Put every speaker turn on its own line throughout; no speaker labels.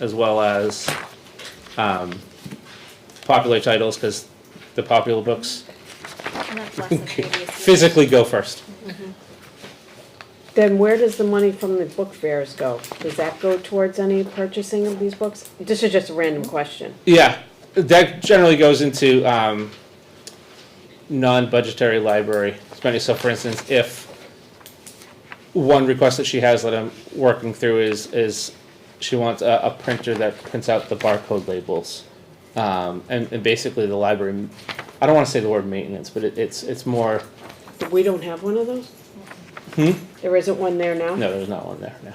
as well as um, popular titles because the popular books
And that's less than previous years.
physically go first.
Then where does the money from the book fairs go? Does that go towards any purchasing of these books? This is just a random question.
Yeah, that generally goes into um, non-budgetary library spending. So, for instance, if one request that she has that I'm working through is is she wants a, a printer that prints out the barcode labels, um, and, and basically the library. I don't want to say the word maintenance, but it, it's it's more.
We don't have one of those? There isn't one there now?
Hmm? No, there's not one there now.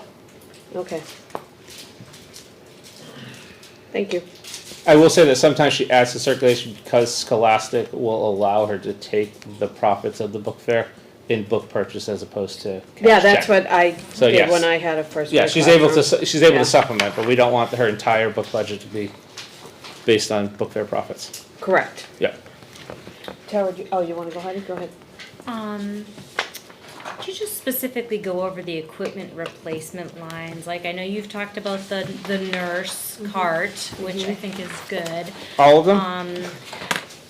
Okay. Thank you.
I will say that sometimes she adds to circulation because Scholastic will allow her to take the profits of the book fair in book purchase as opposed to. cash
Yeah, that's
check.
what I
So,
did
yes.
when I had a first.
Yeah,
grade
she's
class.
able to su- she's able
Yeah.
to supplement, but we don't want her entire book budget to be based on book fair profits.
Correct.
Yeah.
Tara, do you- oh, you wanna go ahead? Go ahead.
Um, could you just specifically go over the equipment replacement lines? Like, I know you've talked about the, the nurse cart, which I think is good.
All of them?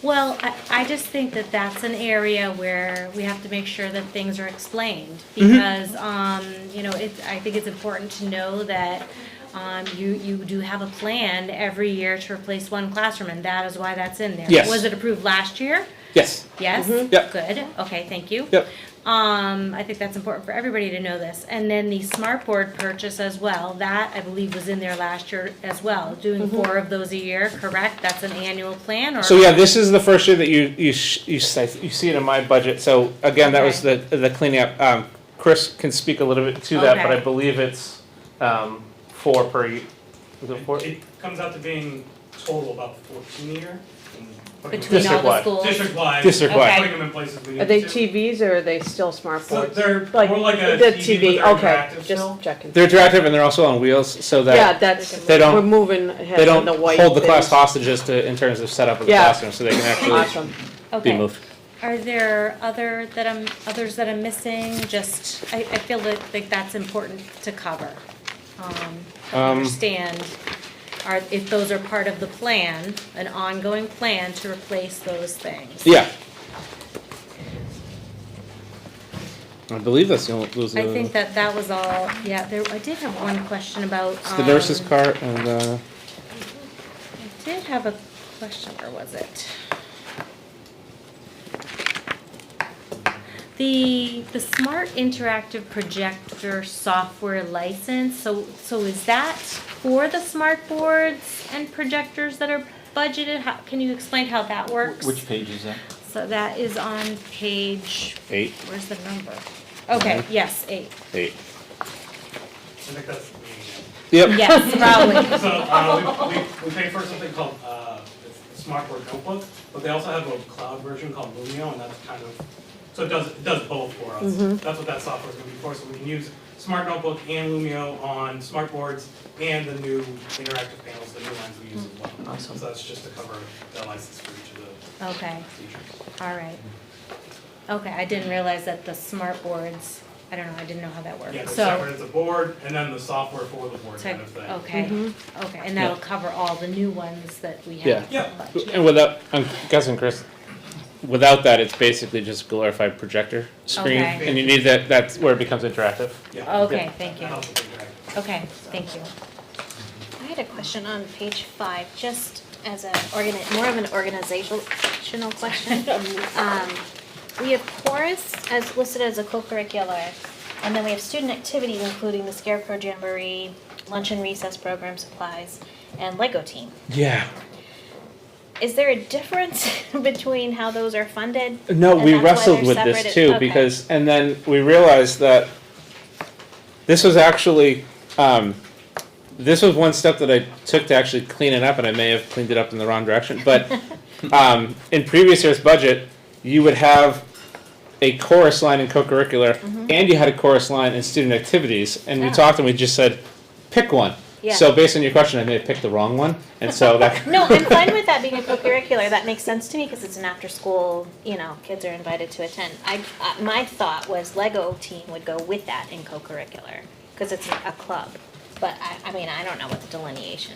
Well, I, I just think that that's an area where we have to make sure that things are explained.
Mm-hmm.
Because, um, you know, it, I think it's important to know that, um, you, you do have a plan every year to replace one classroom, and that is why that's in there.
Yes.
Was it approved last year?
yes.
Yes?
Yep.
Good, okay, thank you.
Yep.
Um, I think that's important for everybody to know this. And then the smart board purchase as well, that I believe was in there last year as well. Doing four of those a year, correct? That's an annual plan or?
So yeah, this is the first year that you you sh- you, s- you see it in my budget. So again, that was the the cleaning up. Um, Chris can speak a little bit to that, but
Okay.
I believe it's um, four per. y- Is it four?
It comes out to being total about fourteen a year. and
Between
putting them-
all the
District-wide.
schools?
District-wide.
District-wide.
Putting them in places we need
Are they
to.
TVs or are they still smart
So
boards?
they're more like a
the
TV, but they're
okay,
interactive still.
just checking.
They're interactive and they're also on wheels, so that
Yeah, that's,
They don't-
we're moving ahead
they
on
don't
the white.
hold the class
things.
hostages to in terms of setup of the
Yeah.
classroom, so they can actually
Awesome.
be
Okay.
moved.
Are there other that I'm, others that I'm missing? Just, I, I feel that, like that's important to cover. Um,
Um,
understand, are, if those are part of the plan, an ongoing plan to replace those things.
Yeah. I believe that's the only. Those
I
Uh,
are the-
think that that was all, yeah, there, I did have one question about,
it's
um.
the nurse's cart and uh,
I did have a question, where was it? The, the smart interactive projector software license, so, so is that for the smart boards and projectors that are budgeted? How, can you explain how that works?
Which page is that?
So that is on page,
eight,
where's the number? Okay, yes, eight.
eight.
I think that's the main
Yep.
Yes, probably.
one. So, uh, we, we, we pay for something called, uh, it's a Smartboard Notebook, but they also have a cloud version called Lumio, and that's kind of, so it does, it does both for us.
Mm-hmm.
That's what that software's gonna be for, so we can use Smart Notebook and Lumio on smartboards and the new interactive panels, the new lines we use as well.
Awesome.
So that's just to cover that license for each of the
Okay.
features.
All right. Okay, I didn't realize that the smart boards, I don't know, I didn't know how that
Yeah,
worked,
it's
so.
separate, it's a board, and then the software for the board
so-
kind of thing.
Okay, okay, and that'll cover all the new ones that we have.
Yeah.
But-
And without, I'm guessing, Chris, without that, it's basically just glorified projector screen,
Okay.
and you need that. That's where it becomes interactive.
Yeah.
Okay, Oh, thank you.
That helps with the-
Okay, thank you.
I had a question on page five, just as a organi- more of an organizational question. Um, we have chorus as listed as a co-curricular, and then we have student activities including the scarecrow jamboree, lunch and recess program supplies, and Lego team.
Yeah.
Is there a difference between how those are funded?
No,
And
we
that's why
wrestled
they're
with this
separate-
too
okay.
because, and then we realized that this was actually, um, this was one step that I took to actually clean it up, and I may have cleaned it up in the wrong direction. But um, in previous year's budget, you would have a chorus line in co-curricular,
Mm-hmm.
and you had a chorus line in student activities, and we
Ah.
talked and we just said, pick one.
Yeah.
So based on your question, I may have picked the wrong one, and so that.
No, I'm fine with that being a co-curricular. That makes sense to me because it's an after-school, you know, kids are invited to attend. I, uh, my thought was Lego team would go with that in co-curricular because it's a club.
But I, I mean, I don't know what the delineation